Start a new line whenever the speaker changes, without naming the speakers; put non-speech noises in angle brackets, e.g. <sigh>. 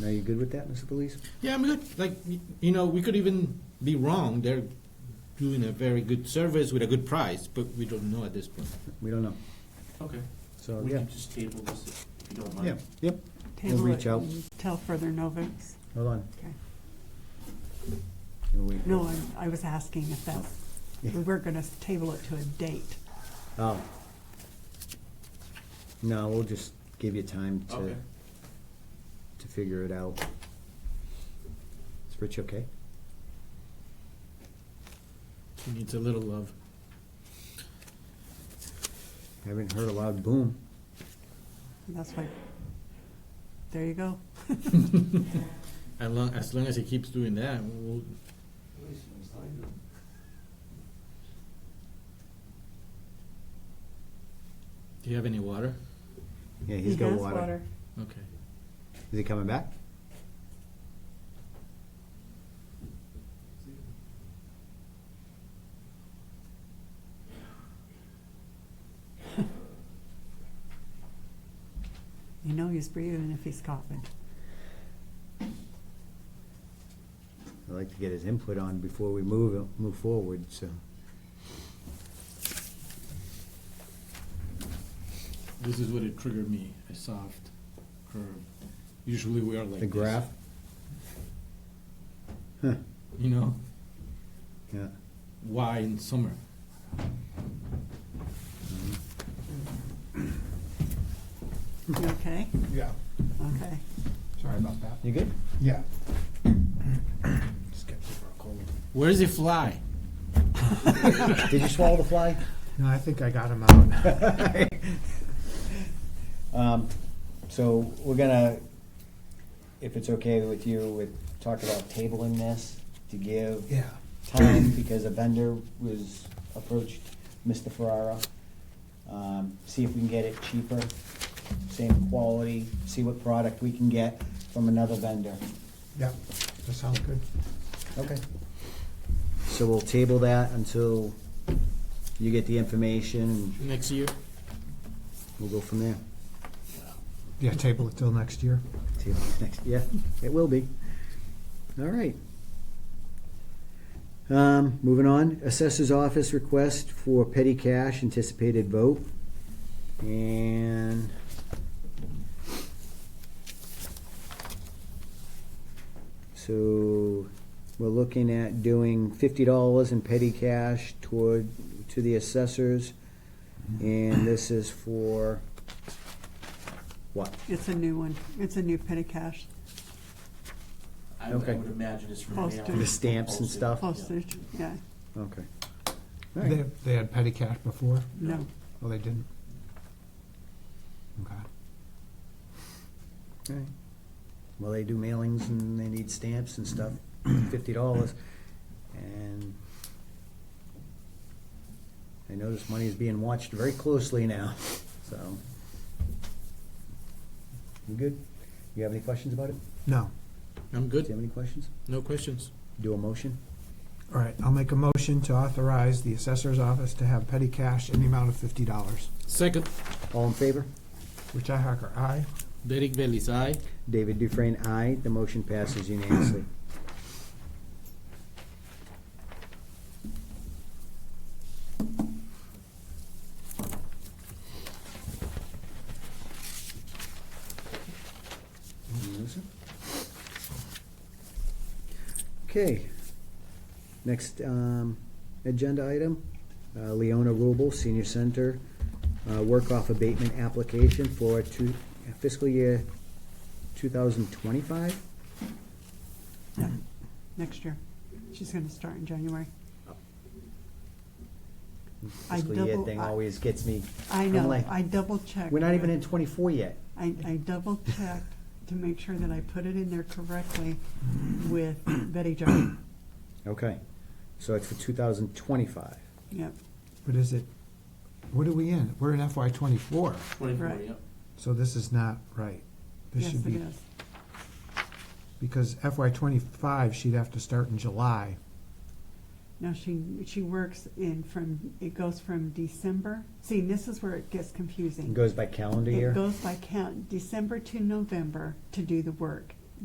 Now, you good with that, Mr. Police?
Yeah, I'm good. Like, y- you know, we could even be wrong. They're doing a very good service with a good price, but we don't know at this point.
We don't know,
Okay,
so,
we
Uh, yeah,
can just table this if you don't
yeah,
mind.
yep, We'll
Table
reach
it
out.
until further notice.
hold on.
Okay.
We'll wait.
No, I'm- I was asking if that's,
Yeah.
we were going to table it to a date.
Oh. No, we'll just give you time to,
Okay.
to figure it out. Is Rich okay?
He needs a little love.
Haven't heard a loud boom.
And That's why, there you go.
As long, as long as he keeps doing that, we'll, do you have any water?
Yeah, he's
He
got
has
water.
Okay.
Is he coming back?
You know he's breathing if he's coughing.
I'd like to get his input on before we move, move forward, so.
This is what it triggered me, a soft curve. Usually we are like
The
this,
graph? Huh,
You know,
yeah.
why in summer?
<laughs>
You okay?
Yeah,
Okay.
sorry about that.
You good? <laughs>
Yeah. Just get over a cold.
Where does it fly?
Did you swallow the fly?
No, I think I got him out.
<laughs> Um, So we're gonna, if it's okay with you, with, talk about tabling this to give
<laughs> Yeah.
time because a vendor was approached, Mr. Ferrara. Um, See if we can get it cheaper, same quality, see what product we can get from another vendor.
Yep, that sounds good.
Okay. So we'll table that until you get the information and
Next year?
we'll go from there.
Yeah, table it till next year.
Table next, yeah, it will be. All right. Um, moving on, assessor's office request for petty cash, anticipated vote. And so we're looking at doing fifty dollars in petty cash toward, to the assessors. And this is for what?
It's a new one. It's a new petty cash
I would I
Okay.
would imagine it's from
Posted.
mail.
The
stamps and
Posted,
stuff?
yeah.
postage. Yeah,
Okay. All right.
They, they had petty cash before?
no.
Well, they didn't. Okay.
Right. Well, they do mailings and they need stamps and stuff, fifty dollars, and I notice money is being watched very closely now, <laughs> so. You good? You have any questions about it?
No.
I'm
Do you
good.
have any questions?
No questions.
Do a motion?
All right, I'll make a motion to authorize the assessor's office to have petty cash in the amount of fifty dollars.
Second,
All in favor?
Richi Hacker, aye.
Derek Bellis, aye.
David Dufresne, aye. The motion passes unanimously. Melissa? Okay. Next um, agenda item, uh, Leona Rubel, Senior Center, uh, work-off abatement application for two- fiscal year 2025?
Next year. She's going to start in January. I
Oh. Fiscal year
double-
thing
I-
always gets me.
I
I'm
know.
like,
I double checked.
We're not even in 24 yet.
I, I double checked to make sure that I put it in there correctly with Betty
<coughs>
Jo.
Okay, so it's for 2025.
Yep.
What is it? What are we in? We're in FY twenty-four,
Twenty-four,
Right.
yep.
so this is not right. This
Yes,
should
it
be
is.
Because FY twenty-five, she'd have to start in July.
No, she, she works in from, it goes from December. See, and this is where it gets confusing.
It goes by calendar
It
year?
goes by count, December to November to do the work.